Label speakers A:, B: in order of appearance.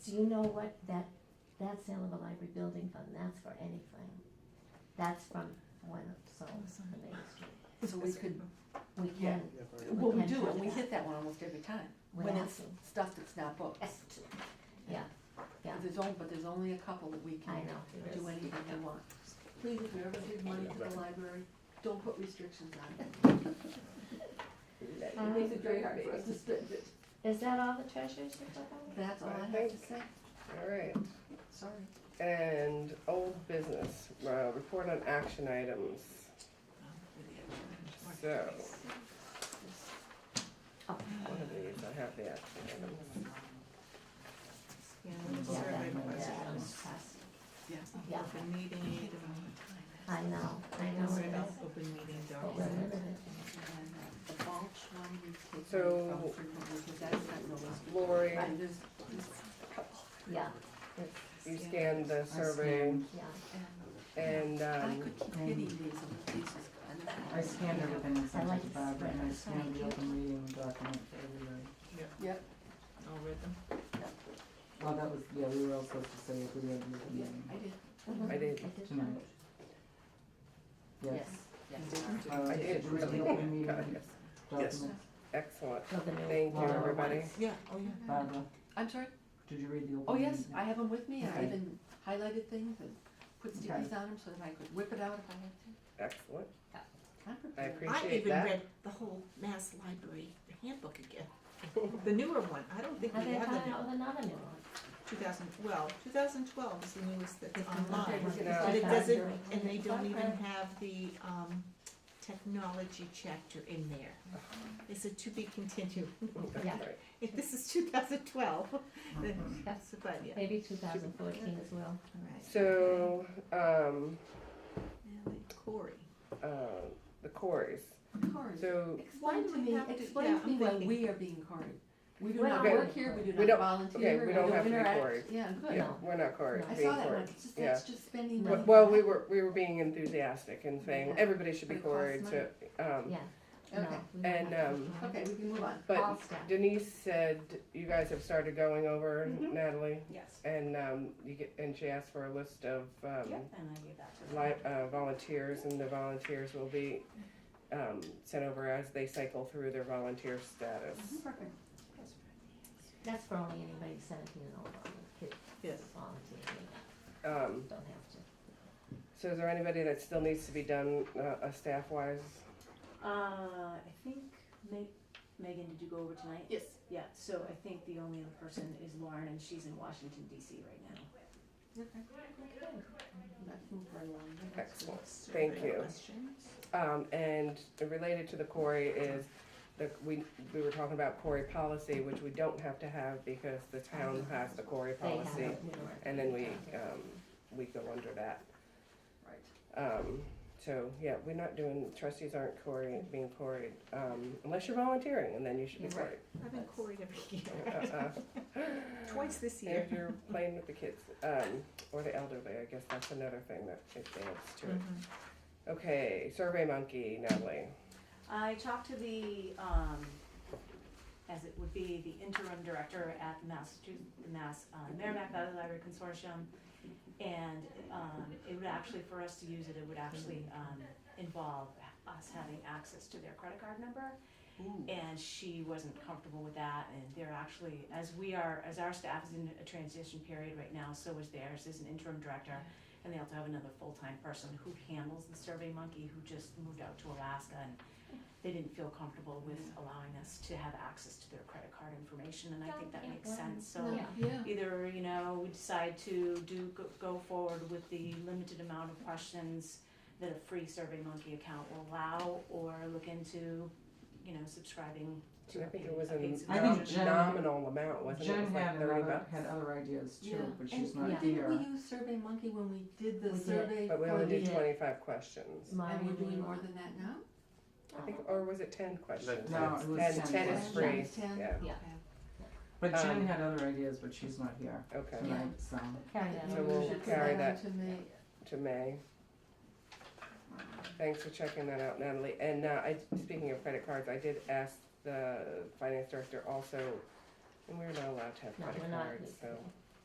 A: Do you know what that, that sale of a library building fund, that's for anything? That's from when it sold to Main Street.
B: So we could,
A: We
B: Yeah.
A: can,
B: well, we
A: can
B: do,
A: do
B: and we
A: that.
B: hit that one almost every time,
A: we
B: when it's stuff that's not books.
A: yeah, yeah,
B: There's only, but there's only a couple that we
A: I
B: can
A: know. there
B: do
A: is.
B: anything we want. Please, if you ever give money to the library, don't put restrictions on it. It makes it very hard for us to spend it.
A: Is that all the treasures you took out?
B: That's all I have to say,
C: Alright,
B: sorry.
C: and old business, uh, report on action items, so.
A: Oh.
C: One of these, I have the action items.
A: Yeah, that one, that one's fast. Yeah.
D: Open meeting,
A: I know, I know it is,
D: open meeting
A: but we're
D: document.
A: limited.
B: And then, uh, The mulch one we take
C: So-
B: from frequently, because that's not realistic.
C: Lori,
B: And there's, there's a couple.
A: Yeah,
C: you scanned the survey
A: yeah,
B: And
C: and,
B: I
C: um,
B: could keep hitting these, and these is kind of.
E: I scanned everything and
A: I
E: sent
A: like
E: it to Barbara, and I
A: this.
E: scanned the open meeting document for everybody.
B: Yep,
D: I'll read them.
E: Well, that was, yeah, we were all supposed to say if we had the open
B: yeah,
E: meeting.
B: I did,
A: Mm-hmm.
C: I did,
A: it is
E: Tonight.
A: fun.
E: Yes.
B: yes.
E: Uh,
C: I
E: did
C: did
E: you read the
C: really,
E: open meeting
C: God, yes,
E: documents?
C: excellent,
A: So the new
C: thank you,
A: lower
C: everybody.
A: ones.
D: Yeah, oh yeah.
E: Barbara,
B: I'm sorry,
E: uh, did you read the open
B: oh
E: meeting?
B: yes, I have them with me, I
E: Okay.
B: even highlighted things and put stickies
E: Okay.
B: on them so that I could whip it out if I had to.
C: Excellent,
B: I'm
C: I
B: prepared.
D: I
C: appreciate
D: even
C: that.
D: read the whole Mass Library handbook again, the newer one, I don't think
A: Have
D: we
A: they
D: have the
A: come
D: new,
A: out with another new one?
D: two thousand, well, two thousand twelve is the newest that's
B: Okay,
D: online.
B: we're gonna
C: No.
D: But it
A: Yeah.
D: doesn't,
A: Yeah.
D: and they don't even
A: Okay.
D: have the, um, technology chapter in there.
A: Uh-huh.
D: It's a to be continued,
A: Yeah.
C: That's right.
D: if this is two thousand twelve,
C: Mm-hmm.
D: that's about, yeah,
A: Maybe two thousand fourteen as well.
D: all right.
C: So, um,
D: Now, Cory.
C: uh, the quarries,
B: Cars.
C: so
B: Explain to me,
D: have to-
B: explain
D: yeah,
B: to me
D: I'm
B: why
D: thinking.
B: we are being carded. We do
A: We're
B: not
A: not
B: work
A: being
B: here, we do
C: We
B: not
C: don't-
B: volunteer,
C: okay,
B: we
C: we don't
B: don't
C: have to be
B: interact.
C: carded.
B: Yeah, good.
C: yeah, we're not quarries,
B: Oh, I
C: being
B: saw that one,
C: quarried,
B: it's just,
C: yeah.
B: that's just spending money.
C: Well- Well, we were, we were being enthusiastic and saying
B: Yeah.
C: everybody should be
B: But it costs
C: quarried, so, um,
A: Yeah. No,
B: Okay.
A: we don't
C: And,
A: have to.
C: um,
B: Okay, we can move on.
C: but
A: All staff.
C: Denise said you guys have started going over,
A: Mm-hmm.
B: Mhm.
C: Natalie,
D: Yes.
C: and, um, you get, and she asked for a list of, um,
D: and I gave that
C: li- uh, volunteers, and the volunteers will be, um, sent over as they cycle through their volunteer status.
B: Perfect.
A: That's for only anybody seventeen and older, the kids
D: Yes.
A: volunteering,
C: Um,
A: don't have to.
C: so is there anybody that still needs to be done, uh, uh, staff-wise?
F: Uh, I think Ma- Megan, did you go over tonight?
B: Yes.
F: Yeah, so I think the only other person is Lauren and she's in Washington DC right now.
B: Okay. Let's move right along. That's good.
C: Excellent, thank you.
D: Questions?
C: Um, and related to the quarry is the, we, we were talking about quarry policy, which we don't have to have because the town has the quarry
A: They have
C: policy.
A: it, we don't have
C: Oh, And
A: to
C: then
A: do
C: we,
A: that.
C: um, we go under that.
B: Right.
C: Um, so, yeah, we're not doing, trustees aren't quarry, being quarried, um, unless you're volunteering and then you should be
A: Yeah.
C: quarried.
D: I've been Cory every year,
C: Uh-uh.
D: twice this year.
C: If you're playing with the kids, um, or the elderly, I guess that's another thing that it adds to it.
D: Mhm.
C: Okay, Survey Monkey, Natalie.
F: I talked to the, um, as it would be, the interim director at Massachusetts, Mass, uh, Merrimack Valley Library Consortium. And, um, it would actually, for us to use it, it would actually, um, involve us having access to their credit card number.
B: Ooh.
F: And she wasn't comfortable with that, and they're actually, as we are, as our staff is in a transition period right now, so is theirs, is an interim director. And they also have another full-time person who handles the Survey Monkey, who just moved out to Alaska, and they didn't feel comfortable with allowing us to have access to their credit card information, and I think that makes sense, so
A: No.
B: Yeah.
F: either, you know, we decide to do, go- go forward with the limited amount of questions that a free SurveyMonkey account will allow, or look into, you know, subscribing to a
C: I think
F: paid,
C: it was
F: a
C: a
F: paid
E: I think
C: nom-
F: subscription.
E: Jen-
C: nominal amount, wasn't it? It
E: Jen
C: was
E: had
C: like thirty
E: another,
C: bucks.
E: had other ideas
B: Yeah.
E: too, but she's
B: And
E: not
B: Didn't we
E: here.
B: use Survey Monkey when we did
A: We
B: the
A: did.
B: survey?
C: But we
B: for-
C: only did
B: Yeah.
C: twenty-five questions.
B: And we're
A: Mine
B: doing
A: and-
B: more than that now?
C: I think, or was it ten questions?
E: No, it was
C: And
E: 10
C: ten is
E: questions.
C: free,
B: Ten?
C: yeah,
A: Yeah.
B: Okay.
E: But Jen
C: um,
E: had other ideas, but she's not here
C: okay,
B: Yeah.
E: tonight, so.
A: Carry that.
C: So
B: Maybe we
C: we'll
B: should
C: carry
B: put
C: that.
B: on To me.
C: to May. Thanks for checking that out, Natalie. And, uh, I, speaking of credit cards, I did ask the finance director also, and we're not allowed to have
A: No,
C: credit
A: we're not.
C: cards, so.